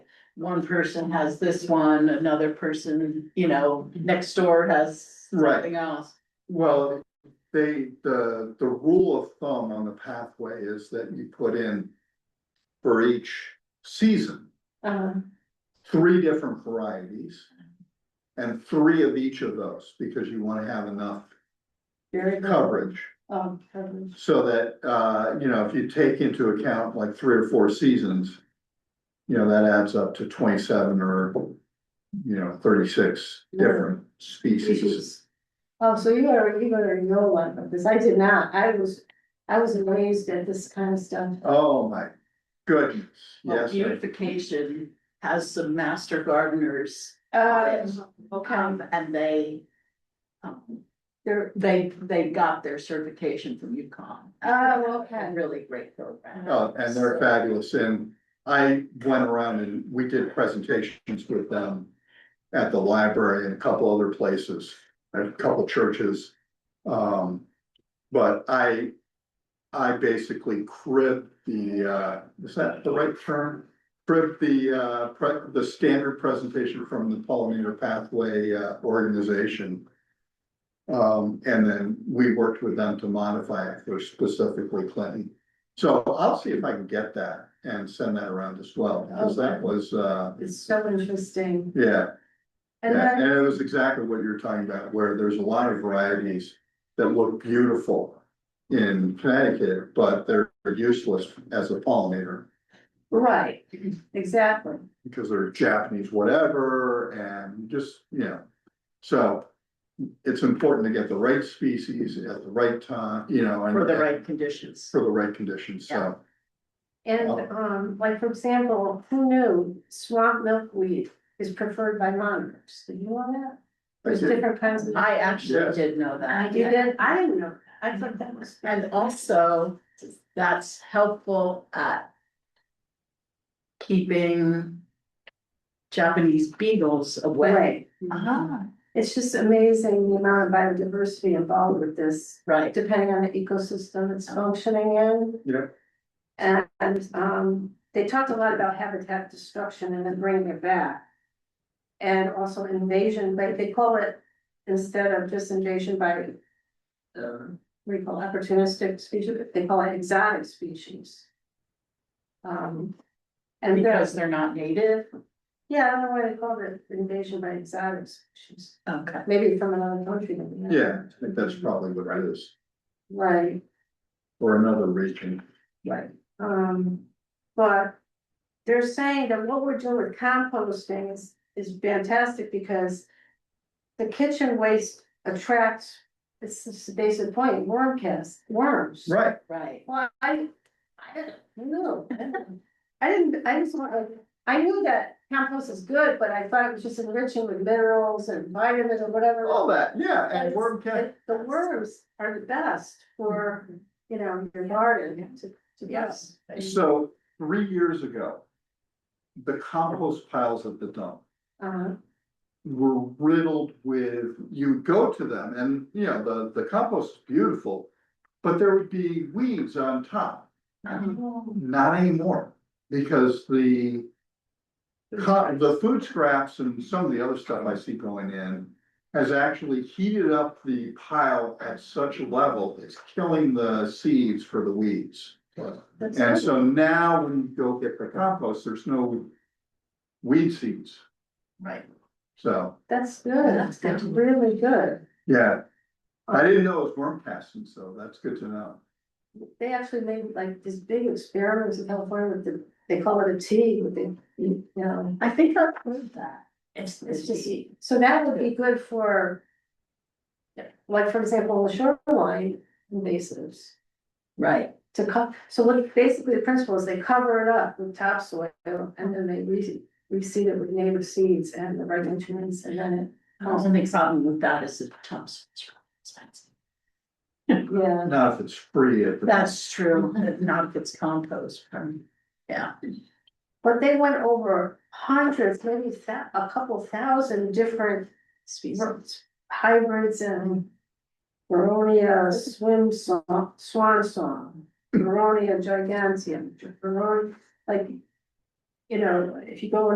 one person has this one, another person, you know, next door has Right. something else. Well, they, the, the rule of thumb on the pathway is that you put in for each season, Um, three different varieties. And three of each of those, because you wanna have enough very good. coverage, Um, coverage. so that, uh, you know, if you take into account like three or four seasons. You know, that adds up to twenty-seven or, you know, thirty-six different species. Oh, so you already, you already know a lot of this, I did not, I was, I was amazed at this kind of stuff. Oh, my goodness, Well, yes. sir. beautification has some master gardeners, Uh, um, and they. um, They're, they, they got their certification from UConn. Oh, okay. A Really great program. Oh, and they're fabulous, and I went around and we did presentations with them at the library and a couple other places, and a couple churches. Um, but I, I basically cribbed the, uh, is that the right term? Cribbed the, uh, pre- the standard presentation from the pollinator pathway uh, organization. Um, and then we worked with them to modify it for specifically Clinton. So I'll see if I can get that and send that around as well, because that was, uh, It's so interesting, yeah, and yeah, then, and it was exactly what you're talking about, where there's a lot of varieties that look beautiful in Connecticut, but they're useless as a pollinator right, exactly. because they're Japanese whatever and just, you know. So it's important to get the right species at the right time, you know, and For the right conditions. for the right conditions, so. And, Oh. um, like, for example, who knew swamp milkweed is preferred by monarchs, did you know that? There's different kinds of. I actually Yes. did know that. You did, I didn't know, that. I thought that was. And also, that's helpful at keeping Japanese beagles away. Right, Uh-huh. Ah, it's just amazing the amount of biodiversity involved with this. right. depending on the ecosystem it's functioning in. Yeah. And, and, um, they talked a lot about habitat destruction and then bringing it back. And also invasion, but they call it, instead of just invasion by, um, what do you call it, opportunistic species, they call it exotic species. Um, and Because there's, they're not native. yeah, I don't know why they called it invasion by exotic species, Okay. maybe from another country. that we haven't- Yeah, I think that's probably what it is, Right. or another region. Right. Um, but they're saying that what we're doing with composting is, is fantastic because the kitchen waste attracts, it's just the basic point, worm cast, worms. Right, Right. Well, I, I didn't, know. I didn't, I just want, I knew that compost is good, but I thought it was just enriching with minerals and vitamins or whatever. all that, Oh, yeah, and It's- worm catch. it- The worms are the best for, you know, your garden to, to be honest. So three years ago, the compost piles at the dump Uh-huh, were riddled with, you go to them and, you know, the, the compost is beautiful, but there would be weeds on top. Mm-hmm. Not anymore, because the co- the food scraps and some of the other stuff I see going in has actually heated up the pile at such a level, it's killing the seeds for the weeds. that's And good. so now when you go get the compost, there's no weed seeds, Right. so, That's good, That's good. that's really good. yeah. I didn't know it was worm casting, so that's good to know. They actually made like this big experiments in California with the, they call it a tea, with the, you know, I think I've heard that. it's, it's just, so that would be good for like, for example, shoreline invasives Right. to co- so what, basically the principle is they cover it up with topsoil and then they re- reseed it with native seeds and the right nutrients and then it The only problem with that is the top's expensive. Yeah, Not if it's free at the. That's true, not if it's compost from, yeah. but they went over hundreds, maybe thou- a couple thousand different species. hybrids and. Veronia swim song, swan song, Veronia giganteum, Veronia, like. You know, if you go